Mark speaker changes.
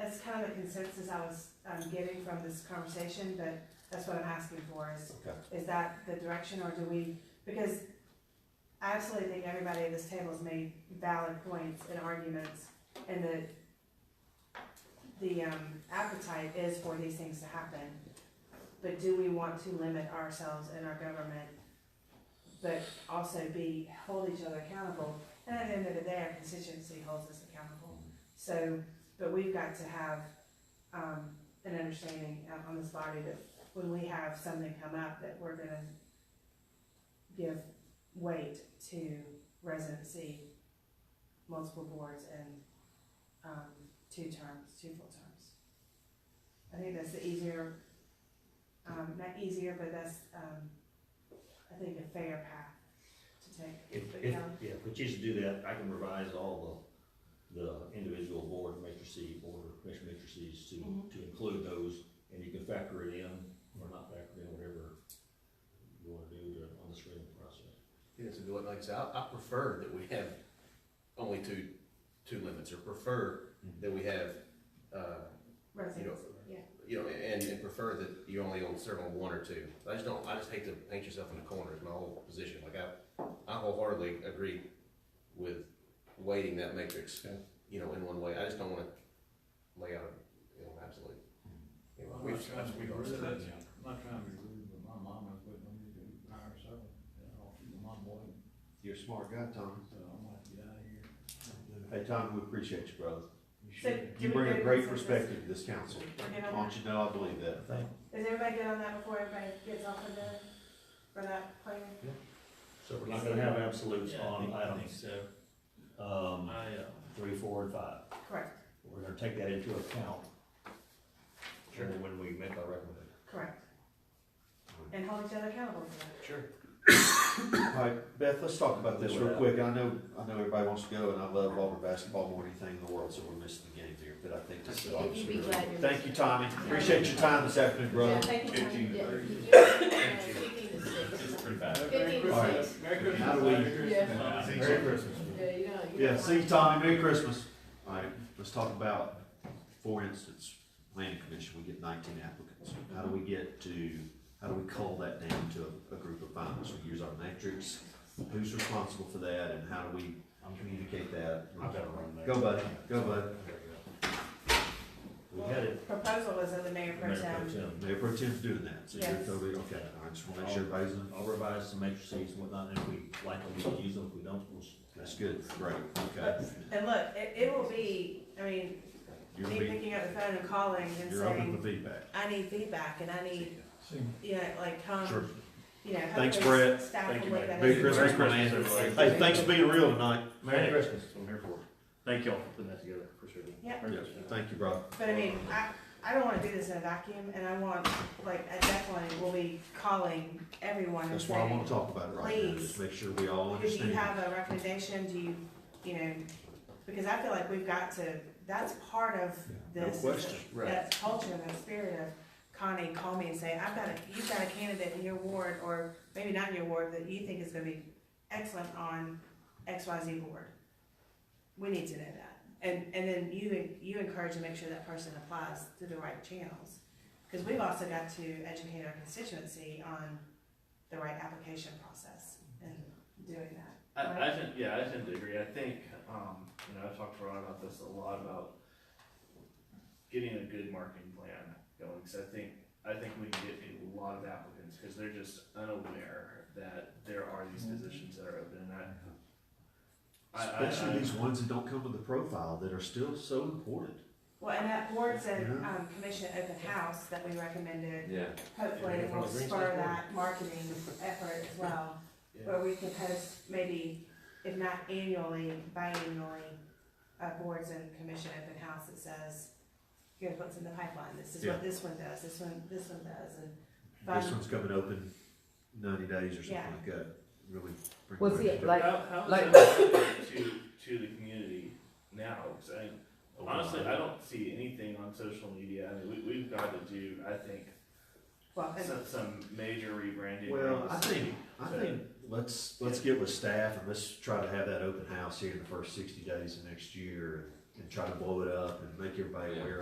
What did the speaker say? Speaker 1: kind of the consensus I was, um, getting from this conversation, but that's what I'm asking for is,
Speaker 2: Okay.
Speaker 1: is that the direction or do we, because I absolutely think everybody at this table has made valid points and arguments and the, the, um, appetite is for these things to happen. But do we want to limit ourselves and our government, but also be, hold each other accountable? And at the end of the day, our constituency holds us accountable. So, but we've got to have, um, an understanding uh, on this body that when we have something come up, that we're gonna give weight to residency, multiple boards and, um, two terms, two full terms. I think that's the easier, um, not easier, but that's, um, I think a fair path to take.
Speaker 3: If, if, yeah, if we choose to do that, I can revise all the, the individual board matrices, board commission matrices to,
Speaker 2: Mm-hmm.
Speaker 1: Mhm.
Speaker 3: to include those, and you can factor it in, or not factor in, whatever you wanna do to, on the screening process.
Speaker 4: Yes, and what, like I said, I, I prefer that we have only two, two limits, or prefer
Speaker 2: Mm-hmm.
Speaker 4: that we have, uh,
Speaker 1: Residency, yeah.
Speaker 4: you know, and, and prefer that you only on- serve on one or two. I just don't, I just hate to paint yourself in a corner is my whole position. Like I, I wholeheartedly agree with weighting that matrix,
Speaker 3: Okay.
Speaker 4: you know, in one way. I just don't wanna lay out, you know, absolutely. you know,
Speaker 5: Well,
Speaker 4: we've-
Speaker 5: that's kind of
Speaker 4: we've
Speaker 5: what
Speaker 4: already-
Speaker 5: it is. I'm not trying to be rude, but my mama quit on me to hire someone, you know, she's my boy,
Speaker 2: You're a smart guy, Tom.
Speaker 5: so I'm like, get out of here.
Speaker 2: Hey, Tom, we appreciate you, brother.
Speaker 5: You
Speaker 1: So,
Speaker 5: should-
Speaker 1: do
Speaker 2: You
Speaker 1: we
Speaker 2: bring
Speaker 1: go
Speaker 2: a
Speaker 1: to
Speaker 2: great
Speaker 1: consensus?
Speaker 2: perspective to this council.
Speaker 1: We're good
Speaker 2: I
Speaker 1: on
Speaker 2: want
Speaker 1: that?
Speaker 2: you to know I believe that.
Speaker 1: Is everybody good on that before everybody gets off of the, for that plan?
Speaker 3: So we're not gonna have absolutes
Speaker 6: Yeah, I
Speaker 3: on
Speaker 6: think- I think
Speaker 3: items,
Speaker 6: so.
Speaker 3: um,
Speaker 6: I, uh,
Speaker 3: three, four, and five.
Speaker 1: Correct,
Speaker 3: We're gonna take that into account when we make our recommendation.
Speaker 1: correct. And hold each other accountable for that.
Speaker 4: Sure.
Speaker 2: All right, Beth, let's talk about this real quick. I know, I know everybody wants to go, and I love Auburn basketball more than anything in the world, so we're missing the game here, but I think this is
Speaker 7: You'd
Speaker 2: obviously.
Speaker 7: be glad you're.
Speaker 2: Thank you, Tommy. Appreciate your time this afternoon,
Speaker 7: Yeah,
Speaker 2: brother.
Speaker 7: thank you.
Speaker 5: Fifteen to
Speaker 7: Yeah,
Speaker 5: thirty.
Speaker 7: you- yeah, Fifteen to
Speaker 6: it's
Speaker 7: six.
Speaker 6: pretty bad.
Speaker 7: Fifteen to
Speaker 2: Alright.
Speaker 7: six.
Speaker 5: Merry
Speaker 2: How
Speaker 5: Christmas.
Speaker 2: do we-
Speaker 5: Merry Christmas.
Speaker 6: Yeah.
Speaker 2: Merry Christmas.
Speaker 7: Yeah, you don't. you
Speaker 2: Yeah,
Speaker 7: don't
Speaker 2: see you,
Speaker 7: mind.
Speaker 2: Tommy. Merry Christmas. All right, let's talk about, for instance, planning commission, we get nineteen applicants. How do we get to, how do we cull that down to a, a group of finalists? We use our matrix, who's responsible for that, and how do we communicate that?
Speaker 3: I've got to run there.
Speaker 2: Go, buddy. Go, buddy.
Speaker 3: We had it.
Speaker 1: Proposal was of the mayor pro
Speaker 3: Mayor Pro
Speaker 1: tem.
Speaker 3: Tem.
Speaker 2: Mayor Pro Tem's doing that, so you're
Speaker 1: Yes.
Speaker 2: totally, okay, all right, just wanna make sure everybody's in.
Speaker 3: I'll revise some matrices and whatnot, and if we like them, we'll use them, if we don't, we'll.
Speaker 2: That's good, great, okay.
Speaker 1: And look, it, it will be, I mean,
Speaker 2: You're,
Speaker 1: me
Speaker 2: be-
Speaker 1: picking up the phone and calling and
Speaker 2: you're open
Speaker 1: saying,
Speaker 2: for feedback.
Speaker 1: I need feedback and I need, you know, like,
Speaker 2: Sure.
Speaker 1: come, you know.
Speaker 2: Thanks,
Speaker 1: hopefully
Speaker 2: Brett.
Speaker 1: Staff
Speaker 3: Thank
Speaker 1: will
Speaker 3: you,
Speaker 1: look
Speaker 3: Mayor.
Speaker 1: at
Speaker 2: Merry
Speaker 1: it.
Speaker 2: Christmas,
Speaker 3: Merry
Speaker 2: man.
Speaker 3: Christmas, everybody.
Speaker 2: Hey, thanks for being real tonight.
Speaker 3: Merry Christmas, I'm here for it. Thank y'all for putting that together, appreciate it.
Speaker 1: Yeah.
Speaker 2: Yeah, thank you, brother.
Speaker 1: But I mean, I, I don't wanna do this in a vacuum and I want, like, I definitely will be calling everyone and
Speaker 2: That's why I
Speaker 1: saying,
Speaker 2: wanna talk about it right now,
Speaker 1: Please.
Speaker 2: just make sure we all
Speaker 1: Do you
Speaker 2: understand.
Speaker 1: have a recommendation, do you, you know, because I feel like we've got to, that's part of
Speaker 2: No
Speaker 1: this.
Speaker 2: question.
Speaker 4: Right.
Speaker 1: That culture, that spirit of Connie, call me and say, I've got a, you've got a candidate in your ward, or maybe not in your ward, that you think is gonna be excellent on X, Y, Z board. We need to know that, and, and then you, you encourage and make sure that person applies through the right channels. Cause we've also got to educate our constituency on the right application process and doing that.
Speaker 6: I, I tend, yeah, I tend to agree. I think, um, you know, I've talked to Ron about this a lot about getting a good marketing plan going. So I think, I think we can get a lot of applicants because they're just unaware that there are these
Speaker 8: Mm-hmm.
Speaker 6: positions that are open and I. I- I-
Speaker 2: Especially
Speaker 6: I-
Speaker 2: these ones that don't come with a profile that are still so important.
Speaker 1: Well, and that board's a,
Speaker 2: Yeah.
Speaker 1: um, commission open house that we recommended,
Speaker 4: Yeah.
Speaker 1: hopefully it will spur that marketing effort as well.
Speaker 6: Yeah.
Speaker 1: Where we could host maybe, if not annually, biannually, uh, boards and commission open house that says, here's what's in the pipeline, this is
Speaker 2: Yeah.
Speaker 1: what this one does, this one, this one does, and.
Speaker 2: This
Speaker 1: fun-
Speaker 2: one's coming open ninety days or something
Speaker 1: Yeah.
Speaker 2: like that, really. bring
Speaker 8: Was
Speaker 2: awareness
Speaker 8: it
Speaker 2: to
Speaker 8: like-
Speaker 6: How, how
Speaker 8: like-
Speaker 6: is that relevant to, to the community now? 'Cause I, honestly, I don't see anything on social media. I mean, we, we've got to do, I think,
Speaker 1: Well, and
Speaker 6: some, some major rebranding.
Speaker 2: Well,
Speaker 6: around the
Speaker 2: I
Speaker 6: city.
Speaker 2: think, I think, let's, let's get with staff and let's try to have that open house here in the first sixty days of next year and- and try to blow it up and make everybody
Speaker 4: Yeah.
Speaker 2: aware